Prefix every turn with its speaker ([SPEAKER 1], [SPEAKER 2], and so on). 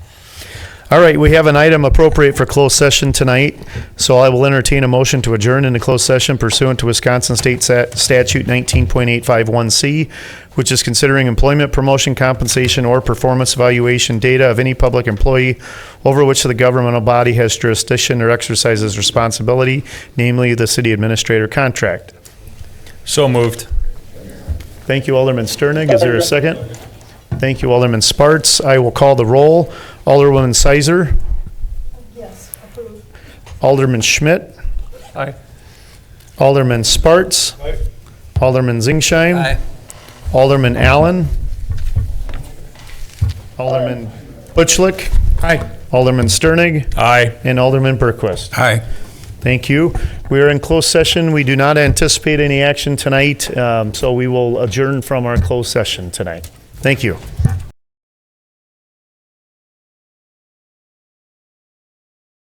[SPEAKER 1] All right, we have an item appropriate for closed session tonight, so I will entertain a motion to adjourn into closed session pursuant to Wisconsin State Sat- Statute 19.851C, which is considering employment, promotion, compensation, or performance evaluation data of any public employee over which the governmental body has jurisdiction or exercises responsibility, namely the city administrator contract.
[SPEAKER 2] So moved.
[SPEAKER 1] Thank you, Alderman Sternig. Is there a second? Thank you, Alderman Sparts. I will call the roll. Alderwoman Sizer.
[SPEAKER 3] Yes, approved.
[SPEAKER 1] Alderman Schmidt.
[SPEAKER 2] Aye.
[SPEAKER 1] Alderman Sparts. Alderman Zingsheim. Alderman Allen. Alderman Butchlick.
[SPEAKER 2] Aye.
[SPEAKER 1] Alderman Sternig.
[SPEAKER 2] Aye.
[SPEAKER 1] And Alderman Berquist.
[SPEAKER 2] Aye.
[SPEAKER 1] Thank you. We are in closed session. We do not anticipate any action tonight, um, so we will adjourn from our closed session tonight. Thank you.